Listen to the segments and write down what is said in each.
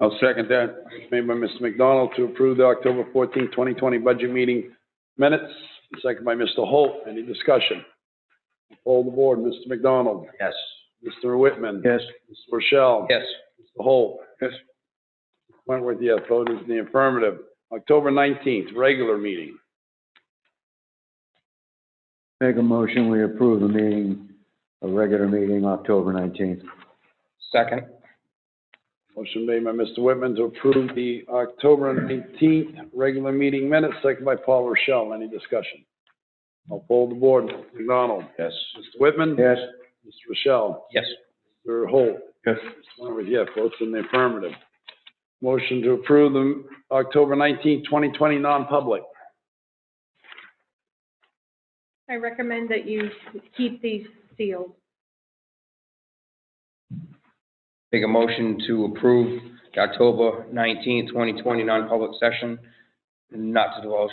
I'll second that. Motion Made by Mr. McDonald to approve the October 14, 2020 budget meeting minutes, second by Mr. Holt. Any discussion? Poll the board. Mr. McDonald? Yes. Mr. Whitman? Yes. Ms. Rochelle? Yes. Mr. Holt? Yes. Wentworth, yes. Vote is in the affirmative. October 19th, regular meeting. Make a motion, we approve the meeting, a regular meeting, October 19th. Second. Motion made by Mr. Whitman to approve the October 19th regular meeting minutes, second by Paul Rochelle. Any discussion? I'll poll the board. Mr. McDonald? Yes. Mr. Whitman? Yes. Mr. Rochelle? Yes. Mr. Holt? Yes. Mr. Wentworth, yes. Votes in the affirmative. Motion to approve the October 19th, 2020 non-public. I recommend that you keep these sealed. Make a motion to approve the October nineteenth, twenty twenty, non-public session, not to divulge.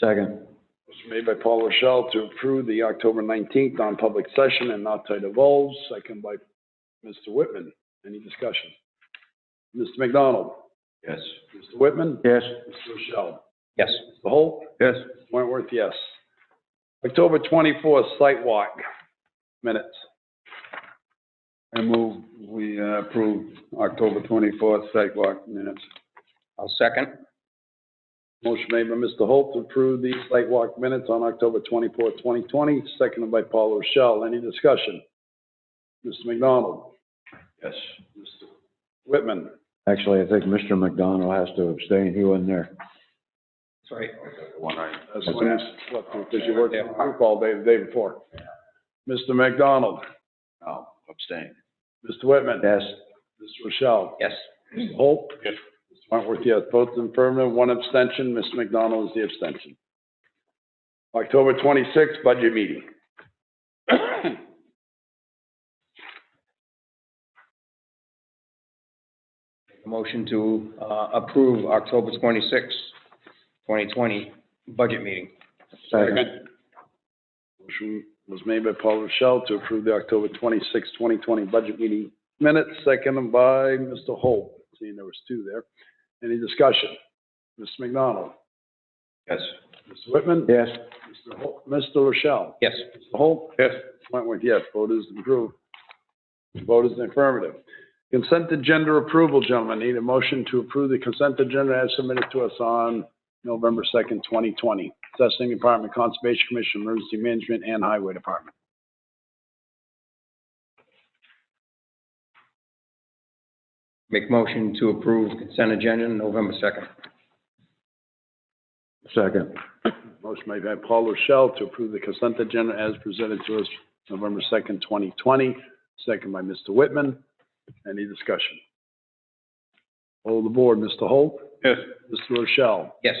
Second. Motion made by Paul Rochelle to approve the October 19th non-public session and not to divulge, second by Mr. Whitman. Any discussion? Mr. McDonald? Yes. Mr. Whitman? Yes. Mr. Rochelle? Yes. Mr. Holt? Yes. Mr. Wentworth, yes. October 24th, site walk, minutes. I move, we uh, approve October 24th, site walk minutes. I'll second. Motion made by Mr. Holt to approve the site walk minutes on October 24th, 2020, seconded by Paul Rochelle. Any discussion? Mr. McDonald? Yes. Mr. Whitman? Actually, I think Mr. McDonald has to abstain, he wasn't there. Sorry. That's when you slept, because you worked on group all day, the day before. Mr. McDonald? No, abstain. Mr. Whitman? Yes. Mr. Rochelle? Yes. Mr. Holt? Yes. Mr. Wentworth, yes. Both in affirmative, one abstention. Mr. McDonald is the abstention. October twenty-sixth, budget meeting. Make a Motion to, uh, approve October twenty-sixth, twenty twenty, budget meeting. Second. Motion was made by Paul Rochelle to approve the October twenty-sixth, twenty twenty budget meeting minutes, seconded by Mr. Holt. Seeing there was two there. Any discussion? Mr. McDonald? Yes. Mr. Whitman? Yes. Mr. Holt- Mr. Rochelle? Yes. Mr. Holt? Yes. Wentworth, yes. Vote is approved. Vote is affirmative. Consent agenda approval, gentlemen. Need a motion to approve the consent agenda as submitted to us on November 2nd, 2020. Assessing Department, Conservation Commission, Emergency Management, and Highway Department. Make motion to approve consent agenda, November second. Second. Motion made by Paul Rochelle to approve the consent agenda as presented to us November 2nd, 2020. Second by Mr. Whitman. Any discussion? Hold the board. Mr. Holt? Yes. Mr. Rochelle? Yes.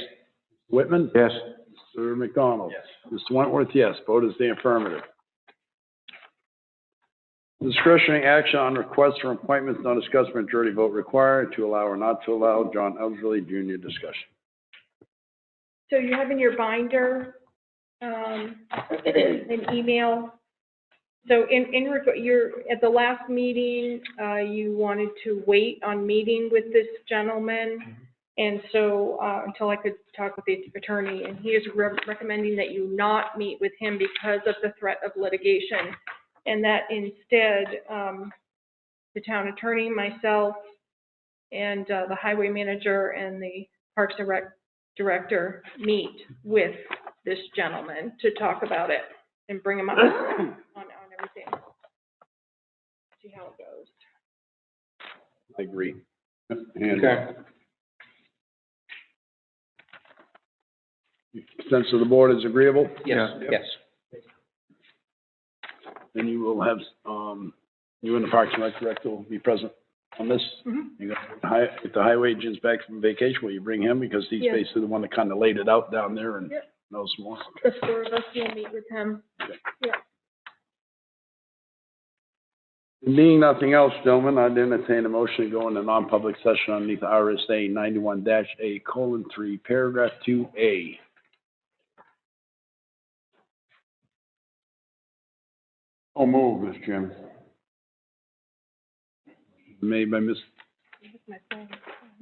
Whitman? Yes. Mr. McDonald? Mr. Wentworth, yes. Vote is the affirmative. Discretionary action on requests for appointments not discussed, majority vote required to allow or not to allow. John Elderly, Jr., discussion. So you have in your binder, um, an email. So in, in, reg- you're, at the last meeting, uh, you wanted to wait on meeting with this gentleman. And so, uh, until I could talk with the attorney, and he is re- recommending that you not meet with him because of the threat of litigation. And that instead, um, the town attorney, myself, and, uh, the highway manager and the Parks and Rec director meet with this gentleman to talk about it and bring him up on, on everything. See how it goes. I agree. And Okay. sense of the board is agreeable, Yes, yes. then you will have, um, you and the Parks and Rec director will be present on this. Mhm. You got the hi- If the highway agent's back from vacation, will you bring him? Because he's Yes. basically the one that kind of laid it out down there and Yep. knows more. The four of us will meet with him. Being nothing else, gentlemen, I'd entertain a motion to go into non-public session underneath RSA ninety-one dash A colon three, paragraph two A. I'll move, Mr. Chairman. Made by Ms. my phone.